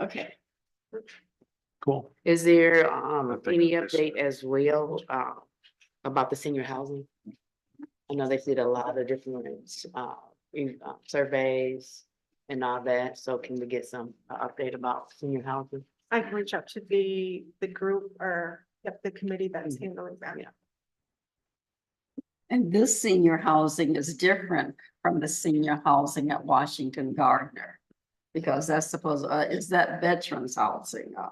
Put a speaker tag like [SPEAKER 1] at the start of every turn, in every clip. [SPEAKER 1] Okay.
[SPEAKER 2] Cool.
[SPEAKER 3] Is there
[SPEAKER 2] I
[SPEAKER 3] um
[SPEAKER 2] think
[SPEAKER 3] any
[SPEAKER 2] I missed
[SPEAKER 3] update as well uh about the senior housing? I know they did a lot of different uh in- uh, surveys and all that, so can we get some uh, update about senior housing?
[SPEAKER 1] I can reach out to the, the group or, yep, the committee that's handling that.
[SPEAKER 3] Mm-hmm. Yeah.
[SPEAKER 4] And this senior housing is different from the senior housing at Washington Gardner. Because that's supposed, uh, is that veterans housing uh,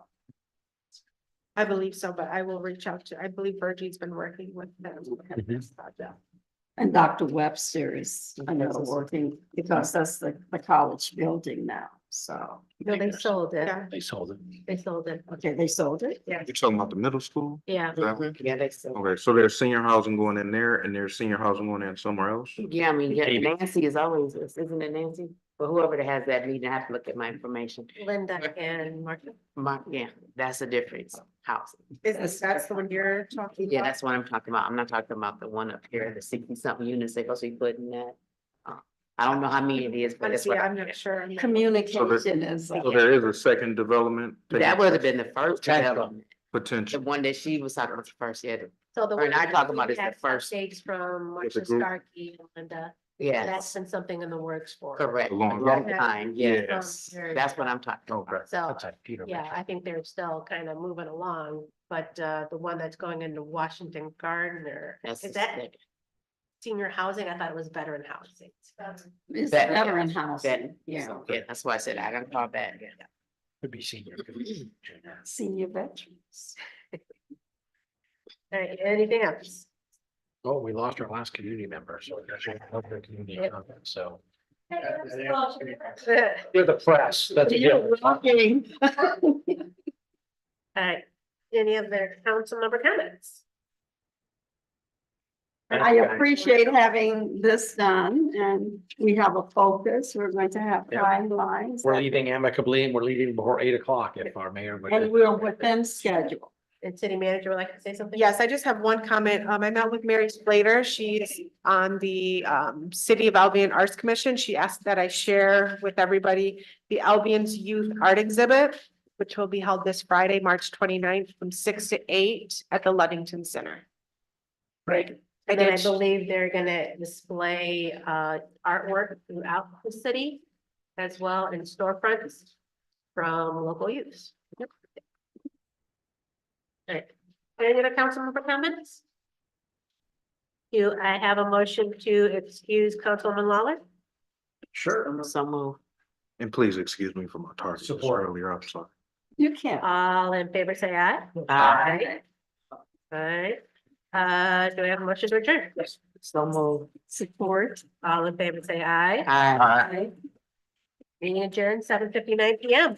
[SPEAKER 1] I believe so, but I will reach out to, I believe Virgie's been working with them. on
[SPEAKER 3] Mm-hmm.
[SPEAKER 2] Mhm.
[SPEAKER 1] this project.
[SPEAKER 4] And Dr. Webster is another working, because that's the, the college building now, so.
[SPEAKER 5] No, they sold it.
[SPEAKER 1] Yeah,
[SPEAKER 2] They sold it.
[SPEAKER 5] They sold it.
[SPEAKER 4] Okay, they sold it?
[SPEAKER 1] yeah.
[SPEAKER 6] You're talking about the middle school?
[SPEAKER 5] Yeah.
[SPEAKER 6] Is that one?
[SPEAKER 3] Yeah, they so,
[SPEAKER 6] Okay, so there's senior housing going in there and there's senior housing going in somewhere else?
[SPEAKER 3] yeah, I mean, yeah,
[SPEAKER 2] Maybe.
[SPEAKER 3] Nancy is always, this, isn't it Nancy? But whoever that has that meeting, I have to look at my information.
[SPEAKER 5] Linda and Martha.
[SPEAKER 3] My, yeah, that's a difference, housing.
[SPEAKER 1] Is, that's the one you're talking
[SPEAKER 3] Yeah,
[SPEAKER 1] about?
[SPEAKER 3] that's what I'm talking about. I'm not talking about the one up here, the sixty something units they're supposed to be putting that. uh, I don't know how many it is, but it's.
[SPEAKER 1] Honestly, I'm not sure. on that.
[SPEAKER 4] Communication is, uh,
[SPEAKER 6] So there is a second development. taking
[SPEAKER 3] That would have been the first
[SPEAKER 2] Tax
[SPEAKER 3] development, the
[SPEAKER 6] Potential.
[SPEAKER 3] one that she was talking about the first, yeah, the-
[SPEAKER 5] So the
[SPEAKER 3] Or
[SPEAKER 5] one
[SPEAKER 3] not talking
[SPEAKER 5] that we
[SPEAKER 3] about is the
[SPEAKER 5] had
[SPEAKER 3] first-
[SPEAKER 5] Updates from
[SPEAKER 6] With the
[SPEAKER 5] Marcia
[SPEAKER 6] group.
[SPEAKER 5] Starkey and Linda. That's
[SPEAKER 3] yes,
[SPEAKER 5] been something in the works for.
[SPEAKER 3] correct.
[SPEAKER 6] A
[SPEAKER 3] A
[SPEAKER 6] long
[SPEAKER 3] Long
[SPEAKER 1] time.
[SPEAKER 3] time, yeah,
[SPEAKER 5] Yes.
[SPEAKER 3] that's what I'm talking
[SPEAKER 6] Okay.
[SPEAKER 3] about.
[SPEAKER 5] So,
[SPEAKER 2] That's like Peter.
[SPEAKER 5] yeah, I think they're still kind of moving along, but uh, the one that's going into Washington Gardner,
[SPEAKER 3] That's
[SPEAKER 5] is
[SPEAKER 3] the
[SPEAKER 5] that
[SPEAKER 3] second.
[SPEAKER 5] senior housing? I thought it was veteran housing.
[SPEAKER 4] is
[SPEAKER 3] Vet-
[SPEAKER 4] veteran housing, yeah,
[SPEAKER 3] So, Yeah, that's why I said I don't call that.
[SPEAKER 2] Could be senior. could be junior.
[SPEAKER 4] senior veterans.
[SPEAKER 5] All right, anything else?
[SPEAKER 2] Oh, we lost our last community member, so. we actually have a community
[SPEAKER 5] Yep.
[SPEAKER 2] member, So.
[SPEAKER 5] All
[SPEAKER 2] You're the press, that's. the deal.
[SPEAKER 5] right, any other council member comments?
[SPEAKER 4] I appreciate having this done and we have a focus. We're going to have
[SPEAKER 2] Yeah.
[SPEAKER 4] guidelines.
[SPEAKER 2] We're leaving amicably and we're leaving before eight o'clock if our mayor. would-
[SPEAKER 4] And we're within schedule.
[SPEAKER 5] And city manager would like to say something?
[SPEAKER 1] Yes, I just have one comment. Um, I met with Mary Slater. She's on the, um, City of Albion Arts Commission. She asked that I share with everybody the Albion's Youth Art Exhibit, which will be held this Friday, March 29th, from six to eight at the Ludington Center.
[SPEAKER 5] Right.
[SPEAKER 1] I
[SPEAKER 5] And then I
[SPEAKER 1] did-
[SPEAKER 5] believe they're gonna display uh artwork throughout the city as well in storefronts from local use. Alright, any other council member comments? Do I have a motion to excuse Councilwoman Lawler?
[SPEAKER 2] Sure.
[SPEAKER 3] So move.
[SPEAKER 6] And please excuse me for my tardiness
[SPEAKER 2] Support.
[SPEAKER 6] earlier, I'm sorry.
[SPEAKER 4] You can't.
[SPEAKER 5] All in favor, say aye.
[SPEAKER 3] Aye.
[SPEAKER 5] Alright, uh, do I have a motion to adjourn?
[SPEAKER 3] So move.
[SPEAKER 4] Support.
[SPEAKER 5] All in favor, say aye.
[SPEAKER 3] Aye.
[SPEAKER 5] Meeting adjourned, seven fifty-nine PM.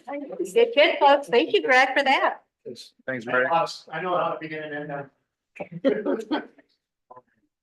[SPEAKER 5] Good kid, folks. Thank you, Greg, for that.
[SPEAKER 6] Thanks,
[SPEAKER 2] I know how to begin and end.